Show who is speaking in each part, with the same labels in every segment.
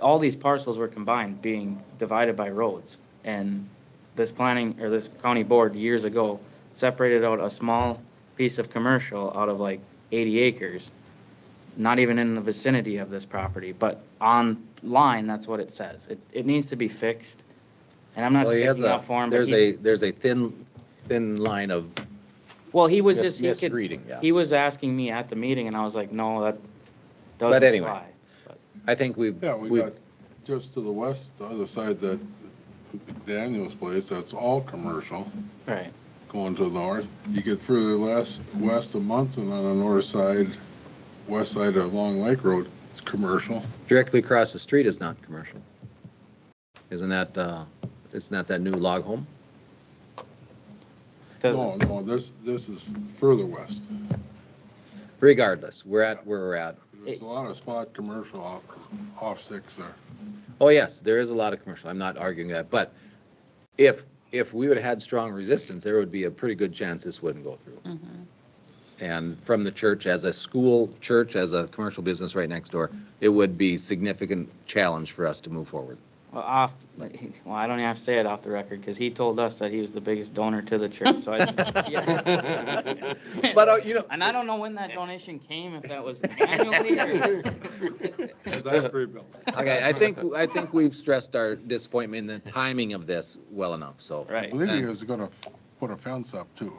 Speaker 1: all these parcels were combined, being divided by roads. And this planning, or this county board years ago separated out a small piece of commercial out of like eighty acres, not even in the vicinity of this property, but online, that's what it says. It, it needs to be fixed. And I'm not
Speaker 2: Well, he has
Speaker 1: speaking
Speaker 2: a,
Speaker 1: up for him, but
Speaker 2: there's
Speaker 1: he,
Speaker 2: a, there's a thin, thin line of
Speaker 1: well, he was
Speaker 2: mis-
Speaker 1: just, he could,
Speaker 2: misreading, yeah.
Speaker 1: he was asking me at the meeting and I was like, no, that
Speaker 2: But
Speaker 1: doesn't
Speaker 2: anyway.
Speaker 1: apply.
Speaker 2: I think we've,
Speaker 3: Yeah, we
Speaker 2: we've,
Speaker 3: got, just to the west, the other side, that Daniel's place, that's all commercial,
Speaker 1: Right,
Speaker 3: going to the north. You get further less, west of Munson on the north side, west side of Long Lake Road, it's commercial.
Speaker 2: directly across the street is not commercial. Isn't that, uh, isn't that that new log home?
Speaker 3: No, no, this, this is further west.
Speaker 2: Regardless, we're at where we're at.
Speaker 3: There's a lot of spot commercial off, off six there.
Speaker 2: Oh, yes, there is a lot of commercial. I'm not arguing that, but if, if we would have had strong resistance, there would be a pretty good chance this wouldn't go through.
Speaker 1: Mm-hmm.
Speaker 2: And from the church, as a school, church, as a commercial business right next door, it would be significant challenge for us to move forward.
Speaker 1: Well, off, well, I don't have to say it off the record, because he told us that he was the biggest donor to the church, so I. yeah.
Speaker 2: But, uh, you know,
Speaker 1: And I don't know when that donation came, if that was annually or.
Speaker 3: As I pre-built.
Speaker 2: Okay, I think, I think we've stressed our disappointment in the timing of this well enough, so.
Speaker 3: I
Speaker 1: Right.
Speaker 3: believe he was gonna f- put a fence up too.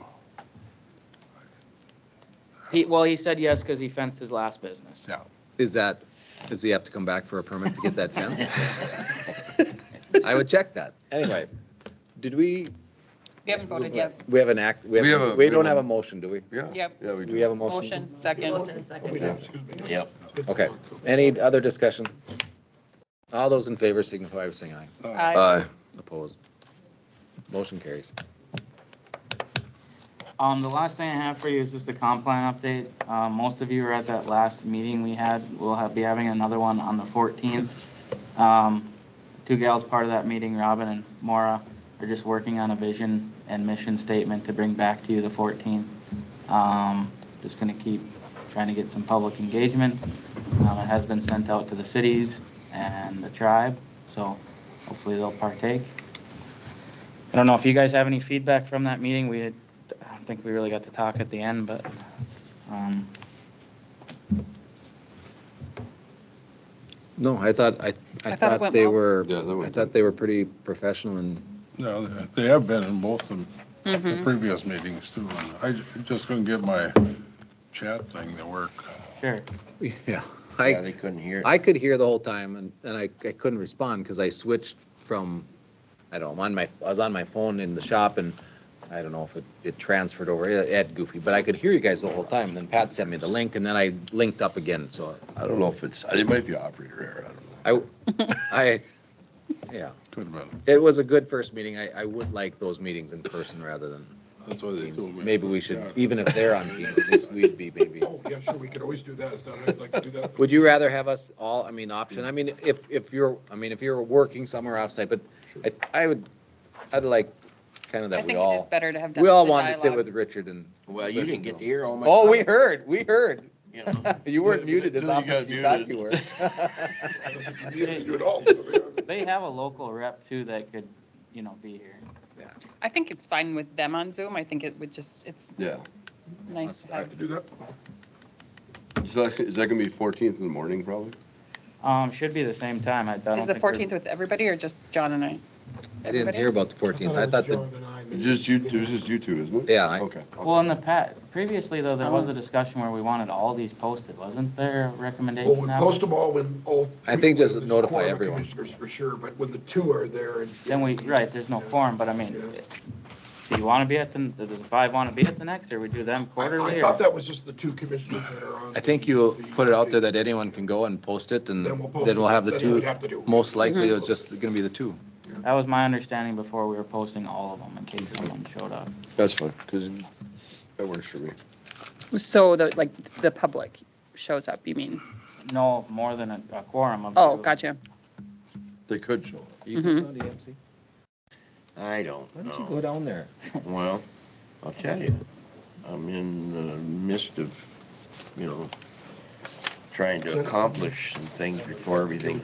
Speaker 1: He, well, he said yes, because he fenced his last business.
Speaker 3: Yeah.
Speaker 2: Uh, Is that, does he have to come back for a permit to get that fence? I would check that. Anyway, did we,
Speaker 4: We haven't voted yet.
Speaker 2: we have an act, we
Speaker 5: We have
Speaker 2: have,
Speaker 5: a-
Speaker 2: we don't have a motion, do we?
Speaker 5: Yeah.
Speaker 4: Yep.
Speaker 5: Yeah, we
Speaker 2: Do
Speaker 5: do.
Speaker 2: we have a motion?
Speaker 4: Motion, second. Uh,
Speaker 6: Motion second.
Speaker 7: Yep.
Speaker 2: Okay, any other discussion? All those in favor signify by saying aye. Uh,
Speaker 4: Aye.
Speaker 5: Aye.
Speaker 2: Opposed? Motion carries.
Speaker 1: Um, the last thing I have for you is just a comp plan update. Uh, most of you were at that last meeting we had. We'll have, be having another one on the fourteenth. Um, two gals part of that meeting, Robin and Maura, are just working on a vision and mission statement to bring back to you the fourteenth. Um, just gonna keep trying to get some public engagement. Um, it has been sent out to the cities and the tribe, so hopefully they'll partake. I don't know if you guys have any feedback from that meeting. We had I don't think we really got to talk at the end, but, um,
Speaker 2: No, I thought, I, I
Speaker 4: I thought it
Speaker 2: thought
Speaker 4: went
Speaker 2: they
Speaker 4: well.
Speaker 2: were,
Speaker 5: Yeah, that
Speaker 2: I
Speaker 5: went-
Speaker 2: thought they were pretty professional and
Speaker 3: No, they have been in both of the
Speaker 4: Mhm.
Speaker 3: previous meetings too. and I ju- just couldn't get my chat thing to work.
Speaker 1: sure.
Speaker 2: Yeah,
Speaker 7: Yeah,
Speaker 2: I,
Speaker 7: they couldn't hear.
Speaker 2: I could hear the whole time and, and I, I couldn't respond because I switched from, I don't know, I'm on my, I was on my phone in the shop and I don't know if it, it transferred over, it it goofy, but I could hear you guys the whole time. And then Pat sent me the link and then I linked up again, so
Speaker 5: I don't know if it's, it might be operator error, I don't know.
Speaker 2: I, I, yeah.
Speaker 3: Could have been.
Speaker 2: It was a good first meeting. I, I would like those meetings in person rather than
Speaker 3: That's why they
Speaker 2: Teams.
Speaker 3: told me.
Speaker 2: Maybe we should, even if they're on Teams, at least we'd be maybe.
Speaker 8: Oh, yeah, sure, we could always do that, it's not, I'd like to do that.
Speaker 2: Would you rather have us all, I mean, option, I mean, if, if you're, I mean, if you're working somewhere outside, but I, I would, I'd like kind of
Speaker 4: I
Speaker 2: that we
Speaker 4: think it is
Speaker 2: all,
Speaker 4: better to have done.
Speaker 2: we all
Speaker 4: the
Speaker 2: wanted to sit
Speaker 4: dialogue.
Speaker 2: with Richard and.
Speaker 7: Well, you
Speaker 2: listen
Speaker 7: didn't get
Speaker 2: him.
Speaker 7: to hear all my.
Speaker 2: Oh, we
Speaker 7: comments,
Speaker 2: heard, we heard.
Speaker 7: you know.
Speaker 2: You weren't muted as
Speaker 5: Then you
Speaker 2: often
Speaker 5: got
Speaker 2: as you thought
Speaker 5: muted.
Speaker 2: you were.
Speaker 8: I don't think you need to do it all.
Speaker 1: They have a local rep too that could, you know, be here.
Speaker 4: I think it's fine with them on Zoom. I think it would just, it's
Speaker 5: Yeah.
Speaker 4: nice to
Speaker 8: I
Speaker 4: have.
Speaker 8: have to do that.
Speaker 5: Is that, is that gonna be fourteenth in the morning, probably?
Speaker 1: Um, should be the same time. I I don't
Speaker 4: Is the
Speaker 1: think we're-
Speaker 4: 14th with everybody or just John and I?
Speaker 2: I didn't
Speaker 4: Everybody?
Speaker 2: hear about the fourteenth. I thought that,
Speaker 5: It's just you, it was just you two, isn't it?
Speaker 2: yeah, I-
Speaker 5: Okay.
Speaker 1: Well, in the pat, previously though, there was
Speaker 4: Oh.
Speaker 1: a discussion where we wanted all these posted, wasn't there a
Speaker 8: Well,
Speaker 1: recommendation?
Speaker 8: we
Speaker 1: that
Speaker 8: post them all when all.
Speaker 2: I think just
Speaker 8: when there's a
Speaker 2: notify
Speaker 8: quorum of
Speaker 2: everyone.
Speaker 8: Commissioners for sure, but when the two are there and.
Speaker 1: Then we, right, there's no quorum, but I mean, do you want to be at the, does the five want to be at the next or we do them
Speaker 8: I-
Speaker 1: quarterly?
Speaker 8: I
Speaker 1: or-
Speaker 8: thought that was just the two commissioners that are on.
Speaker 2: I think you put it out there that anyone can go and post it and
Speaker 8: Then we'll post
Speaker 2: then we'll
Speaker 8: it.
Speaker 2: have the
Speaker 8: That's what
Speaker 2: two.
Speaker 8: we have to do.
Speaker 2: Most likely,
Speaker 4: Mm-hmm.
Speaker 2: it's just gonna be the two.
Speaker 1: That was my understanding before we were posting all of them in case someone showed up.
Speaker 5: That's fine, because that works for me.
Speaker 4: So the, like, the public shows up, you mean?
Speaker 1: No, more than a a quorum of.
Speaker 4: Oh,
Speaker 1: two.
Speaker 4: gotcha.
Speaker 5: They could show. up.
Speaker 2: You
Speaker 4: Mm-hmm.
Speaker 2: can go to EMC.
Speaker 7: I don't
Speaker 2: Why don't you go
Speaker 7: know.
Speaker 2: down there?
Speaker 7: Well, I'll tell you, I'm in the midst of, you know, trying to accomplish some things before everything